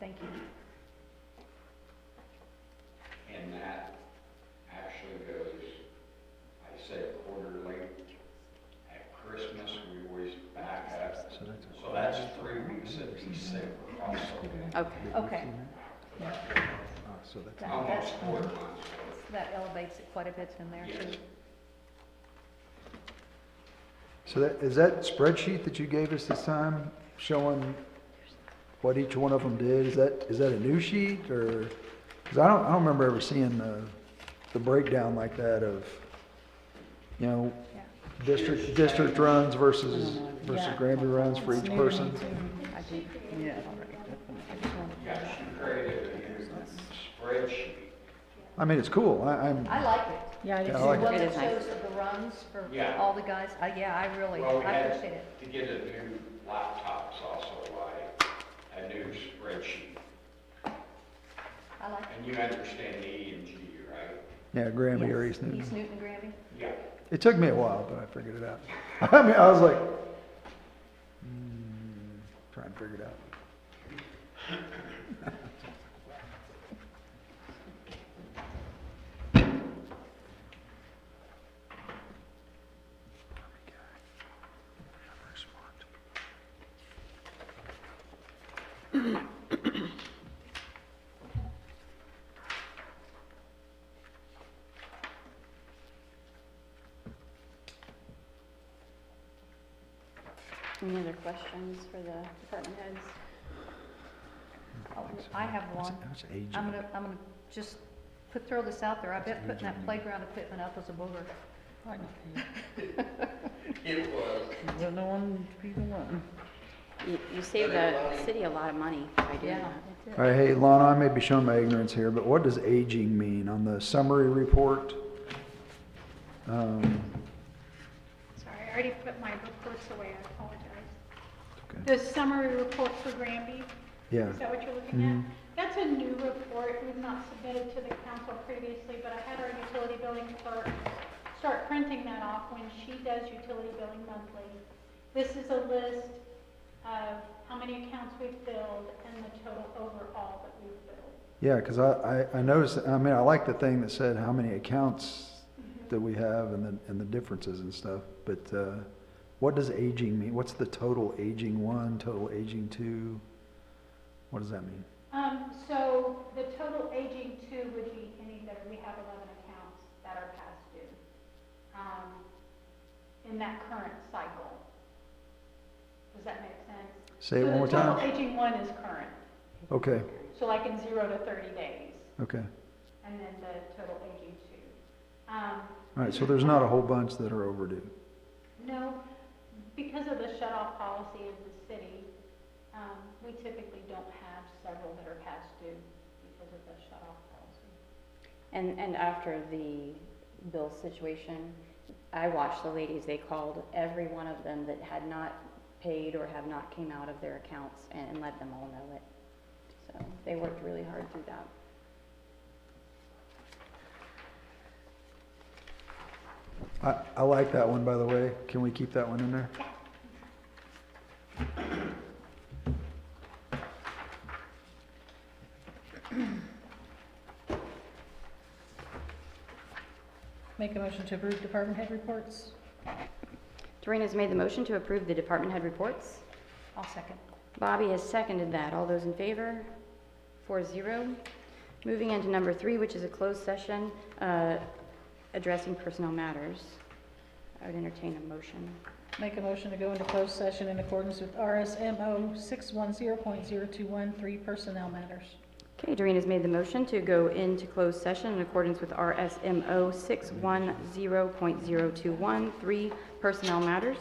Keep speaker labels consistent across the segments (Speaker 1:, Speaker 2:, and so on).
Speaker 1: Thank you.
Speaker 2: And that actually goes, I say quarterly. At Christmas, we always back up. So that's three weeks of December also,
Speaker 3: Okay,
Speaker 1: Okay,
Speaker 4: So that's,
Speaker 1: that,
Speaker 2: almost
Speaker 1: that-
Speaker 2: four months.
Speaker 1: that elevates it quite a bit in there too.
Speaker 2: Yes.
Speaker 4: so that, is that spreadsheet that you gave us this time showing what each one of them did? Is that, is that a new sheet or, because I don't, I don't remember ever seeing the, the breakdown like that of, you know,
Speaker 1: Yeah.
Speaker 4: district, district runs versus, versus
Speaker 3: Yeah.
Speaker 4: Granby runs for each person?
Speaker 1: I do.
Speaker 3: yeah.
Speaker 1: I just wanted to-
Speaker 2: Yes, you created a new spreadsheet.
Speaker 4: I mean, it's cool. I, I'm,
Speaker 1: I like it.
Speaker 3: Yeah,
Speaker 4: Yeah, I like
Speaker 1: Well,
Speaker 3: it
Speaker 1: it
Speaker 3: is
Speaker 1: shows
Speaker 3: nice.
Speaker 1: the runs for
Speaker 2: Yeah.
Speaker 1: all the guys. Uh, yeah, I really,
Speaker 2: Well, we
Speaker 1: I
Speaker 2: had
Speaker 1: appreciate it.
Speaker 2: To get a new laptop is also why a new spreadsheet.
Speaker 1: I like it.
Speaker 2: And you understand the E and G, right?
Speaker 4: yeah, Granby or
Speaker 1: Yes.
Speaker 4: East Newton.
Speaker 1: East Newton, Granby.
Speaker 2: Yeah.
Speaker 4: It took me a while, but I figured it out. I mean, I was like, mm, trying to figure it out.
Speaker 3: Any other questions for the department heads?
Speaker 1: Oh, I have
Speaker 4: What's-
Speaker 1: one.
Speaker 4: what's age
Speaker 1: I'm
Speaker 4: of
Speaker 1: gonna, I'm gonna just put, throw this out there. I bet putting that playground equipment up was a booger.
Speaker 2: It was.
Speaker 5: Don't know one, people one.
Speaker 3: You, you save the city a lot of money by doing that.
Speaker 1: it
Speaker 4: All right, hey, Lana, I may be showing my ignorance here, but what does aging mean on the summary report? Um,
Speaker 6: Sorry, I already put my reports away, I apologize.
Speaker 4: okay.
Speaker 6: The summary report for Granby,
Speaker 4: Yeah,
Speaker 6: is that what you're looking
Speaker 4: Mhm.
Speaker 6: at? That's a new report, we've not submitted to the council previously, but I had our utility billing clerk start printing that off when she does utility billing monthly. This is a list of how many accounts we've billed and the total overall that we've billed.
Speaker 4: yeah, because I, I I noticed, I mean, I like the thing that said how many accounts that we have and the, and the differences and stuff, but uh, what does aging mean? What's the total aging one, total aging two? What does that mean?
Speaker 6: Um, so the total aging two would be any that we have eleven accounts that are past due, um, in that current cycle. Does that make sense?
Speaker 4: Say it one more
Speaker 6: So the
Speaker 4: time.
Speaker 6: total aging one is current,
Speaker 4: Okay,
Speaker 6: so like in zero to thirty days,
Speaker 4: okay.
Speaker 6: and then the total aging two. Um,
Speaker 4: All right, so there's not a whole bunch that are overdue.
Speaker 6: no, because of the shut-off policy of the city, um, we typically don't have several that are past due because of the shut-off policy.
Speaker 3: And, and after the bill situation, I watched the ladies, they called every one of them that had not paid or have not came out of their accounts and, and let them all know it. So they worked really hard through that.
Speaker 4: I, I like that one, by the way. Can we keep that one in there?
Speaker 5: Make a motion to approve department head reports?
Speaker 3: Doreen has made the motion to approve the department head reports.
Speaker 1: I'll second.
Speaker 3: Bobby has seconded that. All those in favor? Four zero. Moving into number three, which is a closed session, uh, addressing personnel matters. I would entertain a motion.
Speaker 5: Make a motion to go into closed session in accordance with RSMO six one zero point zero two one three personnel matters.
Speaker 3: Okay, Doreen has made the motion to go into closed session in accordance with RSMO 610.0213, three personnel matters.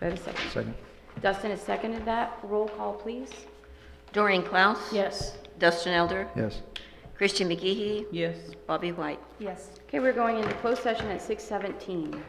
Speaker 3: Do I have a second?
Speaker 4: Second.
Speaker 3: Dustin has seconded that. Roll call, please.
Speaker 7: Doreen Klaus.
Speaker 5: Yes.
Speaker 7: Dustin Elder.
Speaker 4: Yes.
Speaker 7: Christian McGee.
Speaker 5: Yes.
Speaker 7: Bobby White.
Speaker 1: Yes.
Speaker 3: Okay, we're going into closed session at 6:17.